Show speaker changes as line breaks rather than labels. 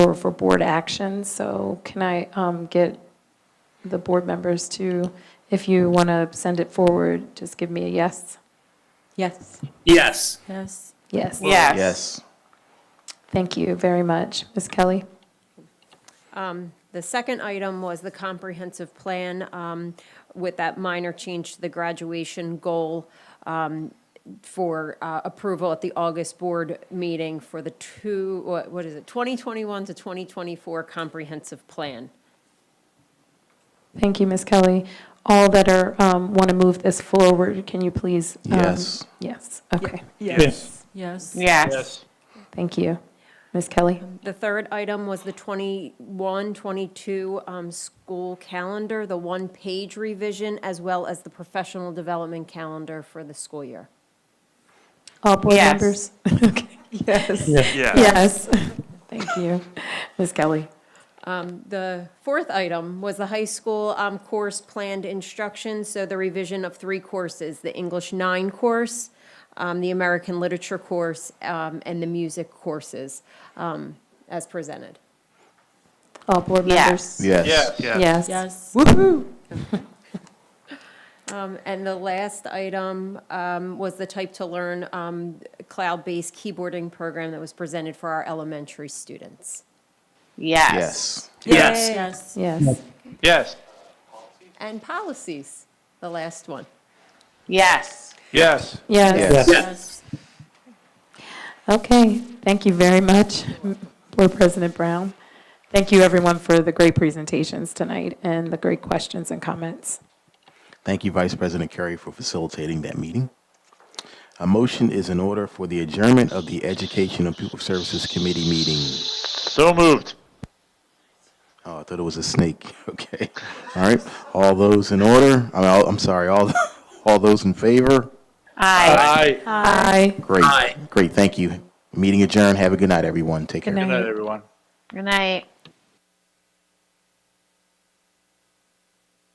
for, for board action, so can I um, get the board members to, if you want to send it forward, just give me a yes?
Yes.
Yes.
Yes.
Yes.
Yes.
Yes.
Thank you very much. Ms. Kelly?
The second item was the comprehensive plan um, with that minor change to the graduation goal um, for uh, approval at the August board meeting for the two, what what is it, 2021 to 2024 comprehensive plan.
Thank you, Ms. Kelly. All that are, want to move this forward, can you please? um,
Yes.
Yes, okay,
Yes.
Yes.
Yes.
thank you. Ms. Kelly?
The third item was the 21, 22 um, school calendar, the one-page revision, as well as the professional development calendar for the school year.
All board
Yes.
members? Okay. Yes.
Yes.
Yes, thank you. Ms. Kelly?
The fourth item was the high school um, course planned instruction, so the revision of three courses, the English 9 course, um, the American Literature course, um, and the music courses, um, as presented.
All board
Yes.
members?
Yes.
Yes.
Yes.
Woo-hoo.
Um, And the last item um, was the Type to Learn um, cloud-based keyboarding program that was presented for our elementary students.
Yes.
Yes.
Yes.
Yes,
Yes.
And policies, the last one.
Yes.
Yes.
yes.
Yes.
Yes.
Okay, thank you very much, Board President Brown. Thank you, everyone, for the great presentations tonight and the great questions and comments.
Thank you, Vice President Curry, for facilitating that meeting. A motion is in order for the adjournment of the Education and People Services Committee meeting.
So moved.
Oh, I thought it was a snake. Okay. All right. All those in order? I mean, all- I'm sorry. All, all those in favor?
Aye.
Aye.
Aye.
Great.
Aye.
Great. Thank you. Meeting adjourned. Have a good night, everyone. Take
Good
care.
night.
Good night, everyone.
Good night.